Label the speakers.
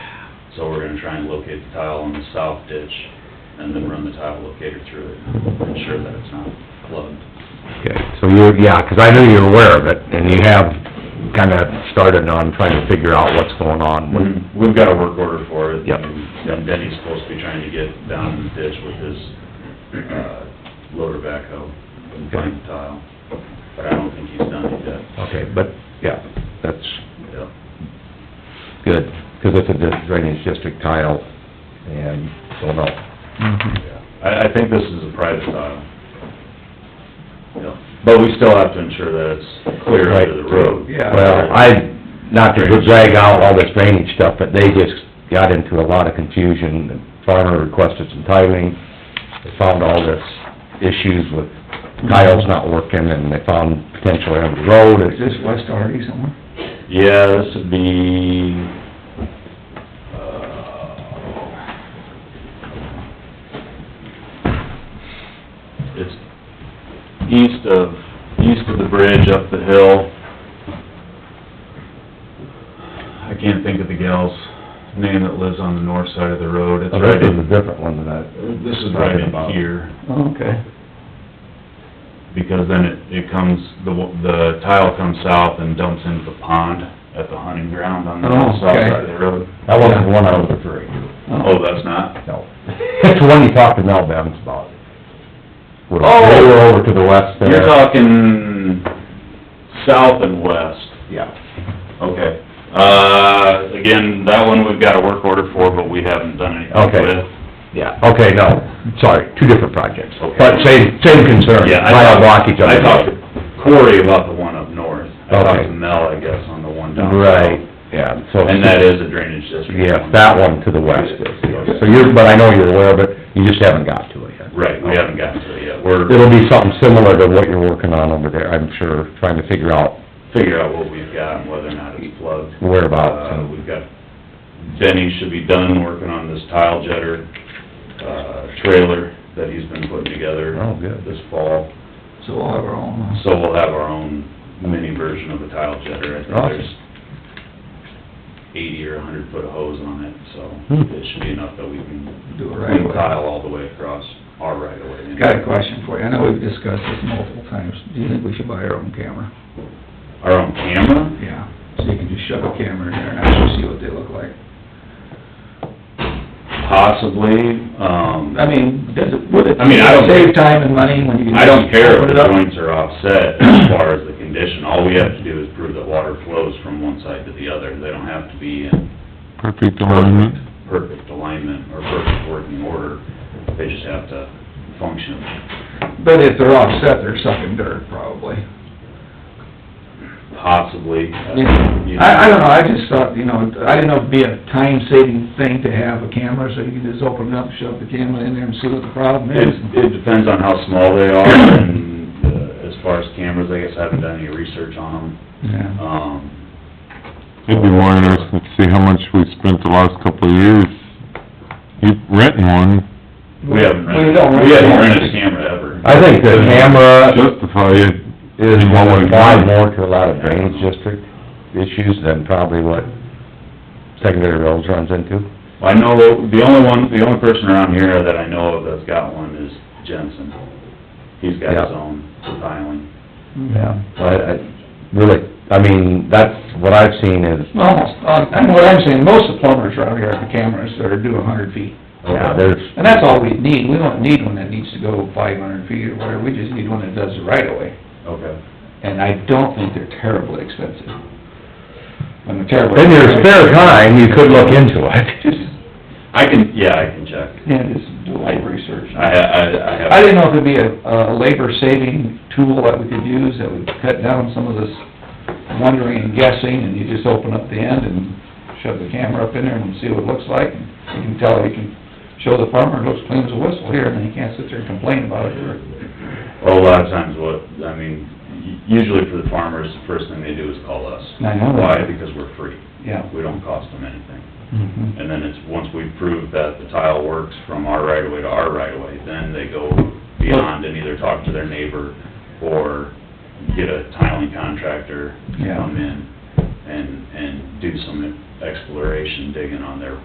Speaker 1: So we're gonna try and locate the tile on the south ditch and then run the tile locator through it, ensure that it's not plugged.
Speaker 2: Okay, so you're, yeah, 'cause I knew you were aware of it, and you have kinda started on trying to figure out what's going on. with-
Speaker 1: We've- We've got a work order for it.
Speaker 2: Yep.
Speaker 1: And Benny's supposed to be trying to get down in the ditch with his, uh, loader backhoe and find the tile, but I don't think he's done it yet.
Speaker 2: Okay, but, yeah, that's
Speaker 1: Yep.
Speaker 2: good, 'cause it's a dis- drainage district tile, and don't know.
Speaker 3: Mm-hmm.
Speaker 1: Yeah. I, I think this is a private tile. Yeah, but we still have to ensure that it's clear under the road.
Speaker 2: Well, I, not to drag out all this drainage stuff, but they just got into a lot of confusion. The Farmer requested some tiling, they found all this issues with tiles not working, and they found potentially on the road, it's
Speaker 3: Is this West Hardy somewhere?
Speaker 1: Yeah, this would be, uh, it's east of, east of the bridge up the hill. I can't think of the gal's name that lives on the north side of the road. It's
Speaker 2: Oh, this
Speaker 1: right
Speaker 2: is a
Speaker 1: in,
Speaker 2: different one than I...
Speaker 1: Uh, this is right in here
Speaker 3: Oh, okay.
Speaker 1: because then it, it comes, the, wa- the tile comes south and dumps into the pond at the hunting ground on the
Speaker 3: Oh,
Speaker 1: south
Speaker 3: okay.
Speaker 1: side of the road.
Speaker 2: That wasn't the one I was referring to,
Speaker 1: Oh, that's not?
Speaker 2: no. That's the one you talked to Mel Bevins about. They
Speaker 1: Oh.
Speaker 2: were over to the west there.
Speaker 1: You're talking south and west.
Speaker 2: Yeah,
Speaker 1: Okay. Uh, again, that one we've got a work order for, but we haven't done anything
Speaker 2: Okay.
Speaker 1: with.
Speaker 2: yeah, okay, no, sorry, two different projects,
Speaker 1: Okay.
Speaker 2: but same, same concern,
Speaker 1: Yeah, I
Speaker 2: tile
Speaker 1: talked-
Speaker 2: blockage on
Speaker 1: I
Speaker 2: the road.
Speaker 1: talked to Corey about the one up north. I talked
Speaker 2: Okay.
Speaker 1: to Mel, I guess, on the one down south.
Speaker 2: Right, yeah, so.
Speaker 1: And that is a drainage district.
Speaker 2: Yes, that one to the west is,
Speaker 1: Yes.
Speaker 2: so you're, but I know you're aware of it, you just haven't got to it yet.
Speaker 1: Right, we haven't gotten to it yet. We're
Speaker 2: It'll be something similar to what you're working on over there, I'm sure, trying to figure out
Speaker 1: figure out what we've got and whether or not it's plugged. Uh,
Speaker 2: whereabouts and,
Speaker 1: we've got, Benny should be done working on this tile jetter, uh, trailer that he's been putting together
Speaker 2: oh, good.
Speaker 1: this fall.
Speaker 3: So we'll have our own. uh,
Speaker 1: So we'll have our own mini version of a tile jetter. I think
Speaker 2: Awesome.
Speaker 1: there's eighty or a hundred foot of hose on it,
Speaker 2: Hmm.
Speaker 1: so it should be enough that we can
Speaker 3: Do it right
Speaker 1: clean
Speaker 3: away.
Speaker 1: tile all the way across our right of way.
Speaker 3: Got a question for you. I know we've discussed this multiple times. Do you think we should buy our own camera?
Speaker 1: Our own camera?
Speaker 3: Yeah. So you can just shove a camera in there and actually see what they look like.
Speaker 1: Possibly, um.
Speaker 3: I mean, does it, would it
Speaker 1: I mean, I don't-
Speaker 3: save time and money when you can...
Speaker 1: I don't care if
Speaker 3: Put
Speaker 1: the
Speaker 3: it up?
Speaker 1: joints are offset as far as the condition, all we have to do is prove that water flows from one side to the other, they don't have to be in
Speaker 4: Perfect
Speaker 2: Um,
Speaker 4: alignment.
Speaker 1: perfect alignment or perfect working order, they just have to function
Speaker 3: But if they're offset, they're sucking dirt probably.
Speaker 1: possibly. uh, you know.
Speaker 3: I, I don't know, I just thought, you know, I didn't know it'd be a time-saving thing to have a camera, so you can just open it up, shove the camera in there and see what the problem
Speaker 1: It,
Speaker 3: is.
Speaker 1: it depends on how small they are, and uh, as far as cameras, I guess I haven't done any research on them,
Speaker 3: Yeah.
Speaker 1: um,
Speaker 4: It'd be more interesting to see how much we spent the last couple of years, you renting one,
Speaker 1: we haven't rented,
Speaker 3: We don't
Speaker 1: we haven't
Speaker 3: really-
Speaker 1: rented a camera ever.
Speaker 2: I think the camera
Speaker 4: justify it.
Speaker 2: is
Speaker 4: You
Speaker 2: what
Speaker 4: want
Speaker 2: would
Speaker 4: to
Speaker 2: apply
Speaker 4: buy.
Speaker 2: more to a lot of drainage district issues than probably what secondary roads runs into.
Speaker 1: I know, the only one, the only person around here that I know of that's got one is Jensen. He's got his
Speaker 2: Yeah.
Speaker 1: own for tiling.
Speaker 2: Yeah. I, I, really, I mean, that's what I've seen is,
Speaker 3: Well, uh, I know what I'm saying, most of the plumbers around here have the cameras that are due a hundred feet.
Speaker 2: Oh, yeah, there's,
Speaker 3: And that's all we need, we don't need one that needs to go five hundred feet or whatever, we just need one that does the right of way.
Speaker 1: Okay.
Speaker 3: And I don't think they're terribly expensive. When they're terribly...
Speaker 2: in your spare time, you could look into it.
Speaker 3: Just,
Speaker 1: I can, yeah, I can check.
Speaker 3: yeah, just do a little research.
Speaker 1: I, I, I have.
Speaker 3: I didn't know if it'd be a, a labor-saving tool that we could use that would cut down some of this wondering and guessing, and you just open up the end and shove the camera up in there and see what it looks like, and you can tell, you can show the farmer, it looks clean as a whistle here, and then you can't sit there and complain about it, or,
Speaker 1: Well, a lot of times what, I mean, u- usually for the farmers, the first thing they do is call us.
Speaker 3: I know
Speaker 1: Why?
Speaker 3: that.
Speaker 1: Because we're free.
Speaker 3: yeah.
Speaker 1: We don't cost them anything.
Speaker 3: Mhm.
Speaker 1: And then it's, once we prove that the tile works from our right of way to our right of way, then they go beyond and either talk to their neighbor or get a tiling contractor to
Speaker 3: Yeah.
Speaker 1: come in and, and do some exploration digging on their